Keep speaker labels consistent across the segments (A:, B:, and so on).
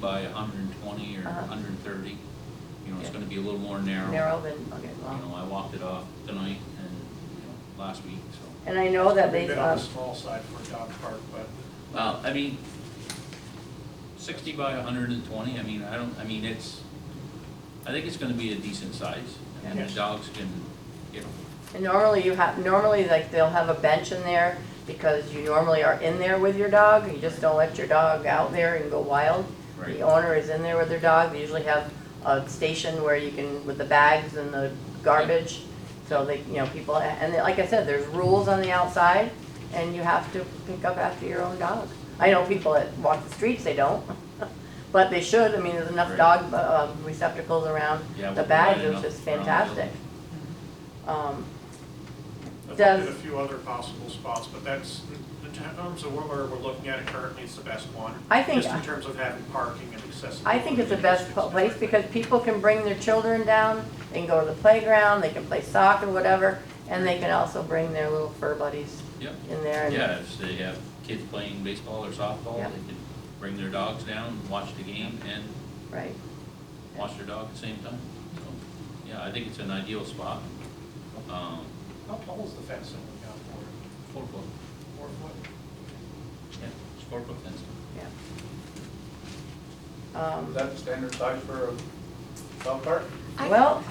A: by hundred and twenty or
B: Uh-huh.
A: hundred and thirty. You know, it's
B: Yeah.
A: gonna be a little more narrow.
B: narrow than, okay,
A: You know,
B: well.
A: I walked it off tonight and, you know, last week, so.
B: And I know that
C: We've
B: they've,
C: been on
B: uh,
C: the small side for dog park, but
A: Well, I mean, sixty by hundred and twenty, I mean, I don't, I mean, it's, I think it's gonna be a decent size. I mean, the
C: Yeah.
A: dogs can, you know,
B: and normally you have, normally like they'll have a bench in there because you normally are in there with your dog. You just don't let your dog out there and go wild. The
A: right,
B: owner is in there with their dog. They usually have a station where you can, with the bags and the garbage. So they, you know, people, and then, like I said, there's rules on the outside and you have to pick up after your own dog. I know people that walk the streets, they don't, but they should. I mean, there's enough
A: Right.
B: dog uh, receptacles around
A: Yeah,
B: the
A: we're
B: bags.
A: lining
B: It's
A: up
B: just
A: around the
B: fantastic. Um,
C: I've looked
B: Does-
C: at a few other possible spots, but that's, in terms of where we're looking at it currently, it's the best one.
B: I think-
C: Just in terms of having parking and accessibility.
B: I think it's the
C: and
B: best
C: acoustics
B: pl-
C: and
B: place
C: everything.
B: because people can bring their children down, they can go to the playground, they can play soccer, whatever, and they can also bring their little fur buddies
A: yep.
B: in there. and-
A: Yeah, if they have kids playing baseball or softball,
B: Yeah.
A: they can bring their dogs down, watch the game and
B: Right.
A: watch their dog at the same time. So, yeah, I think it's an ideal spot. Um,
C: How tall is the fence that we got for it?
A: four foot,
C: Four foot?
A: yeah, it's four foot fence.
B: Um,
D: Is that the standard size for a dog park?
B: Well,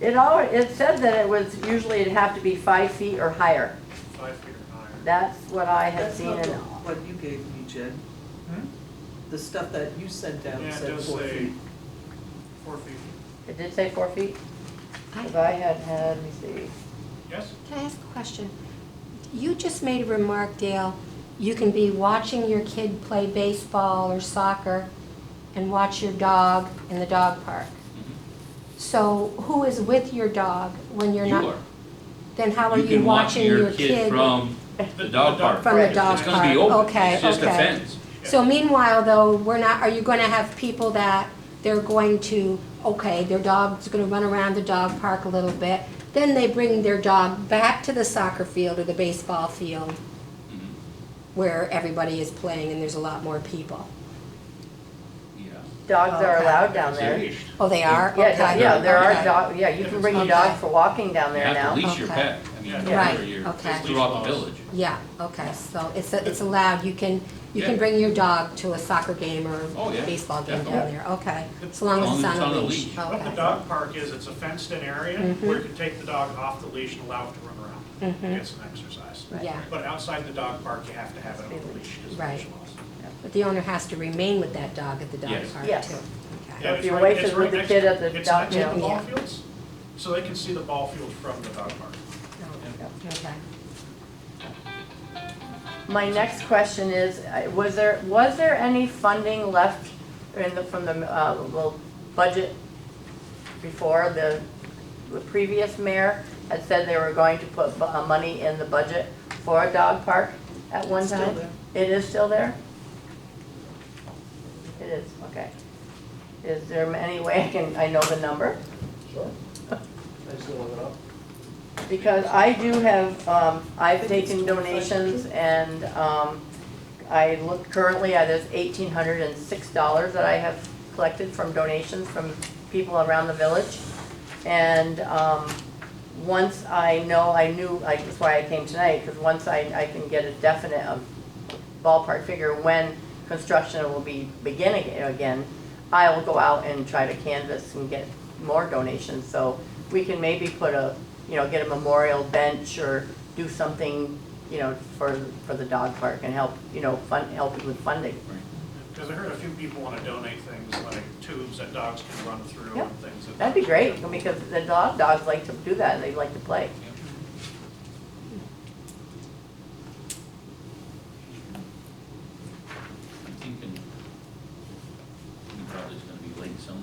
B: it all, it said that it was, usually it'd have to be five feet or higher.
C: Five feet or higher.
B: That's what I had
E: That's
B: seen
E: not the
B: in,
E: one you gave me, Jen.
C: Hmm?
E: The stuff that you sent down
C: Yeah, it
E: said
C: does
E: four
C: say
E: feet.
C: four feet.
B: it did say four feet? If
F: I-
B: I had had, let me see.
C: Yes?
F: Can I ask a question? You just made a remark, Dale, you can be watching your kid play baseball or soccer and watch your dog in the dog park.
A: Mhm.
F: So who is with your dog when you're not?
A: You are.
F: Then how are
A: You
F: you
A: can watch
F: watching your kid?
A: From the dog park.
F: From the
C: Right.
F: dog
A: It's gonna be
F: park.
A: open,
F: Okay,
A: it's just a
F: okay.
A: fence.
F: So meanwhile, though, we're not, are you gonna have people that they're going to, okay, their dog's gonna run around the dog park a little bit, then they bring their dog back to the soccer field or the baseball field
B: Mm-hmm.
A: Mhm.
F: where everybody is playing and there's a lot more people?
A: Yeah.
B: Dogs are
F: Oh, Okay.
B: allowed down there.
A: Leashed.
F: Oh, they are?
B: Yeah,
F: Okay,
B: do- yeah, there are
F: okay.
B: dog, yeah, you can bring your dog for walking down
A: You
B: there now.
A: have to leash your
F: Okay.
A: pet, I mean,
C: Yeah.
A: wherever you're,
F: Right, okay.
A: throughout the village.
F: Yeah, okay, so it's, it's allowed, you can, you can
A: Yeah.
F: bring your dog to a soccer game or
A: Oh, yeah,
F: baseball game down
A: definitely.
F: there, okay, as long as it's on a leash, okay.
C: What the dog park is, it's a fenced in area
B: Mm-hmm.
F: Mhm.
C: where you can take the dog off the leash and allow it to run around.
F: Mhm.
C: Get some exercise.
B: Right.
F: Yeah.
C: But outside the dog park, you have to have it on the leash. is what
F: Right.
C: it was.
F: But the owner has to remain with that dog at the dog
A: Yes.
F: park too?
B: Yes.
F: Okay.
C: Yeah,
B: If
C: it's
B: you're
C: right-
B: waiting
C: it's
B: with
C: right
B: the
C: next-
B: kid at the
C: it's
B: dog-
C: next to the
F: yeah.
C: ball
F: Yeah.
C: fields, so they can see the ball field from the dog park.
F: Oh, Okay.
B: My next question is, uh, was there, was there any funding left in the, from the, uh, well, budget before the, the previous mayor had said they were going to put bu- uh, money in the budget for a dog park at one
E: It's still
B: time? It is still there? It is, okay. Is there any way I can, I know the number?
D: Sure. I just look it up.
B: Because I do have, um, I've taken donations and, um, I look currently at this eighteen hundred and six dollars that I have collected from donations from people around the village. And, um, once I know, I knew, like, that's why I came tonight, because once I, I can get a definite um, ballpark figure when construction will be beginning again, I will go out and try to canvas and get more donations, so we can maybe put a, you know, get a memorial bench or do something, you know, for, for the dog park and help, you know, fund, help with funding.
C: Because I heard a few people want to donate things like tubes that dogs can run through
B: Yeah.
C: and things. that-
B: That'd be great, because the dog, dogs like to do that, they like to play.
A: I'm thinking, we probably it's gonna be late summer,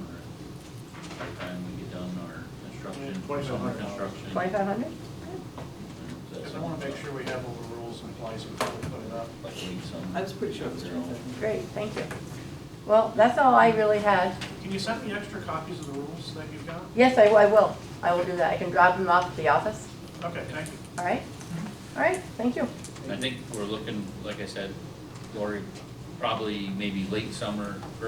A: by the time we get done our construction,
D: Yeah, 27
A: summer
D: right now.
A: construction.
B: Twenty-five hundred?
C: Because I want to make sure we have all the rules in place before we put it up.
A: Like late summer.
E: I was pretty sure it was
A: They're
E: two
A: all-
E: fifty.
B: Great, thank you. Well, that's all I really had.
C: Can you send me extra copies of the rules that you've got?
B: Yes, I, I will, I will do that, I can drop them off at the office,
C: Okay, thank you.
B: all right? All right, thank you.
A: I think we're looking, like I said, Lori, probably maybe late summer,